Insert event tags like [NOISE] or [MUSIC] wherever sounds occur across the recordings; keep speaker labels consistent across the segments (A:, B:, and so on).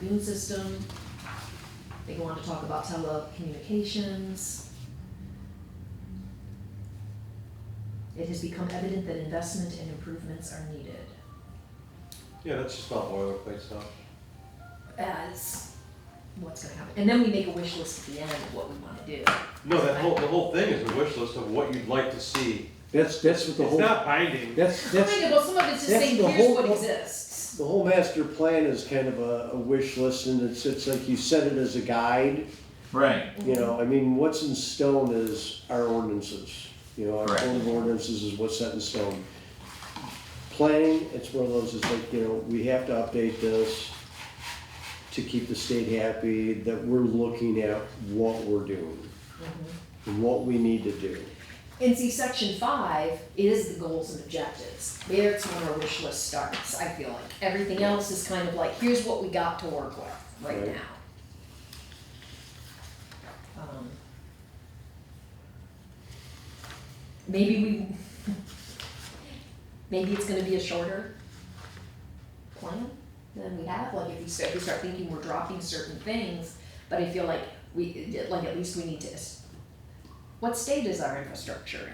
A: immune system. They go on to talk about telecommunications. It has become evident that investment and improvements are needed.
B: Yeah, that's just all boilerplate stuff.
A: As what's gonna happen, and then we make a wish list at the end of what we wanna do.
B: No, that whole, the whole thing is a wish list of what you'd like to see.
C: That's, that's what the
B: It's
C: whole,
B: not binding.
C: that's,
A: Kind
C: that's,
A: of, well, some of it's just
C: that's
A: saying,
C: the
A: here's
C: whole
A: what
C: po-
A: exists.
C: the whole master plan is kind of a, a wish list and it's, it's like you set it as a guide.
D: Right.
C: You know, I mean, what's in stone is our ordinances, you know, our
D: Correct.
C: code of ordinances is what's set in stone. Planning, it's one of those, it's like, you know, we have to update this to keep the state happy, that we're looking at what we're doing. And what we need to do.
A: And see, section five is the goals and objectives. There's when our wish list starts, I feel like. Everything else is kind of like, here's what we got to work with right
C: Right.
A: now. Um, Maybe we, [LAUGHS] maybe it's gonna be a shorter plan than we have, like if we start, we start thinking we're dropping certain things, but I feel like we, like at least we need to es- what state is our infrastructure in?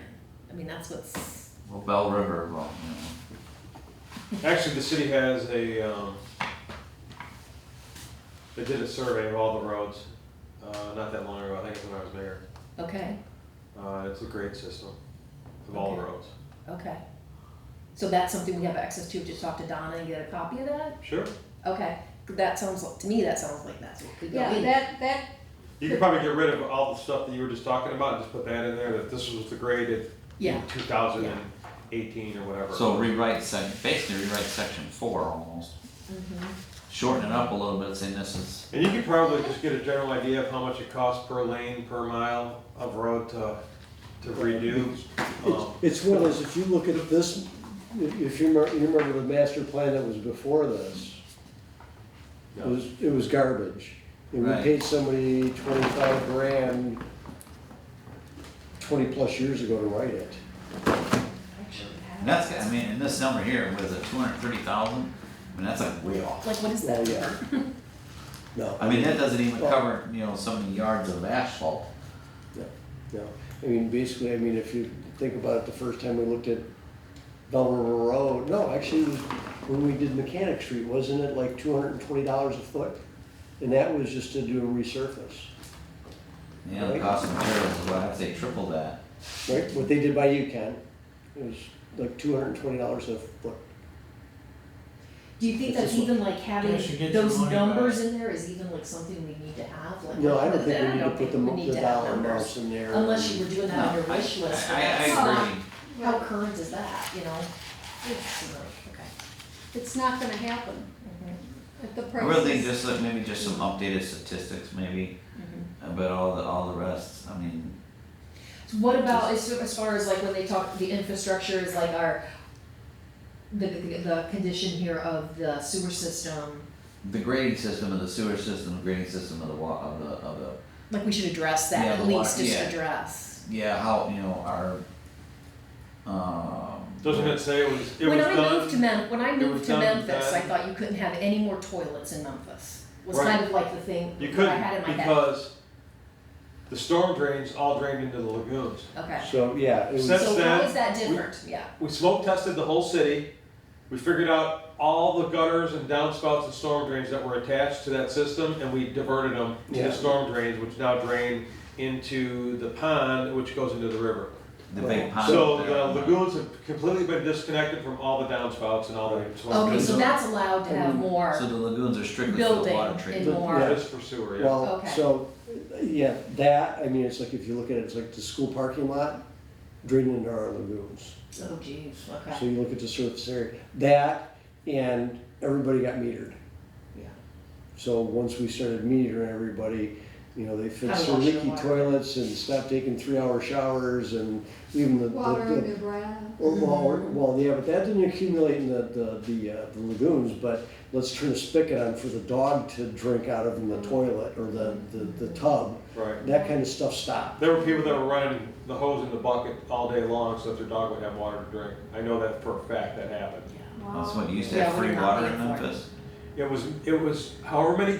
A: I mean, that's what's,
D: Well, Bell River, well, you know.
B: Actually, the city has a, um, they did a survey of all the roads, uh, not that long ago, I think it was when I was mayor.
A: okay,
B: Uh, it's a grade system of all the
A: Okay.
B: roads.
A: okay. So that's something we have access to, just talk to Donna and get a copy of that?
B: Sure.
A: Okay, that sounds like, to me, that sounds like that's what we go
E: Yeah,
A: in.
E: that, that,
B: You could probably get rid of all the stuff that you were just talking about and just put that in there, that this was the grade in
A: Yeah,
B: two thousand and eighteen or whatever.
D: So rewrite sec, basically rewrite section four almost.
A: Mm-hmm.
D: Shorten it up a little bit, saying this is,
B: And you could probably just get a general idea of how much it costs per lane, per mile of road to, to redo. Um,
C: It's, it's one of those, if you look at this, if if you remember, you remember the master plan that was before this, it
B: yeah.
C: was, it was garbage. And we
D: Right.
C: paid somebody twenty-five grand twenty-plus years ago to write it.
A: actually,
D: and that's, I mean, and this number here was a two hundred thirty thousand, I mean, that's like way off.
A: like, what is
C: Well,
A: that?
C: yeah. No.
D: I mean, that doesn't even
C: Well-
D: cover, you know, so many yards of asphalt.
C: No, no. I mean, basically, I mean, if you think about it, the first time we looked at Bell River Road, no, actually, when we did Mechanic Street, wasn't it like two hundred and twenty dollars a foot? And that was just to do a resurface,
D: You know, the cost of materials, well, I'd say triple that.
C: right? What they did by UConn, it was like two hundred and twenty dollars a foot.
A: Do you think
C: It's
A: that's
C: just
A: even like having
F: They should get your
A: those
F: money
A: numbers
F: back.
A: in there is even like something we need to have, like?
C: No, I don't think
A: I
C: we need to
A: don't
C: put
A: think
C: the,
A: we
C: mo-
A: need
C: the
A: to have
C: dollar
A: numbers.
C: amounts in there.
A: Unless you were doing that on your
D: No, I-
A: wish list. but
D: I, I
A: that's not-
D: agree.
A: How
E: well,
A: current is that, you know? It's like, okay.
E: it's not gonna happen at the
D: I
E: price.
D: really think just like, maybe just some updated statistics maybe
A: Mhm.
D: about all the, all the rest, I mean,
A: So What about as, as far as like when they talk, the infrastructure is like our, the, the, the condition here of the sewer system,
D: the grading system of the sewer system, the grading system of the wa, of the, of the
A: like we should address that,
D: Yeah,
A: at
D: the water-
A: least just
D: yeah.
A: address.
D: yeah, how, you know, our, um.
B: Doesn't it say it was, it was
A: When I moved to
B: done?
A: Mem, when I
B: it
A: moved
B: was
A: to
B: done
A: Memphis, I
B: then.
A: thought you couldn't have any more toilets in Memphis, was
B: Right.
A: kind of like the thing
B: You
A: that I had
B: couldn't
A: in my head,
B: because the storm drains all drained into the lagoons.
A: okay.
C: So, yeah, it was,
B: Set- That's
A: So how
B: that.
A: is that
B: We-
A: different, yeah,
B: We smoke tested the whole city. We figured out all the gutters and downspouts and storm drains that were attached to that system and we diverted them to
C: Yeah.
B: the storm drains, which now drain into the pond, which goes into the river.
D: The big pond.
B: So
D: up
B: the
D: there.
B: lagoons have completely been disconnected from all the downspouts and all the storm
A: okay,
B: drains.
A: so that's allowed to have
C: Um,
D: Mm-hmm.
A: more
D: So the lagoons are strictly for the
A: building
D: water treatment.
A: and
C: But-
A: more.
C: yeah.
B: Just for sewer, yeah.
C: well,
A: Okay.
C: so, yeah, that, I mean, it's like, if you look at it, it's like the school parking lot drained into our lagoons.
A: Oh geez,
C: So
A: okay,
C: you look at the surface area, that, and everybody got metered.
A: yeah.
C: So once we started metering everybody, you know, they
A: How to
C: fixed their
A: wash your
C: leaky
A: water.
C: toilets and stopped taking three-hour showers and even the. the-
E: Water
C: the-
E: on your breath.
C: Or, well, or- well, yeah, but that didn't accumulate in the, the, the uh, the lagoons, but let's turn a spigot on for the dog to drink out of in
A: Mm.
C: the toilet or the, the, the tub.
B: Right.
C: That kind of stuff stopped.
B: There were people that were running the hose in the bucket all day long so that their dog would have water to drink. I know that for a fact that happened.
A: Yeah.
E: Wow.
D: That's what, you used to
A: Yeah,
D: have
A: we
D: free
A: were not
D: water in
A: paying for it.
D: Memphis?
B: It was, it was however many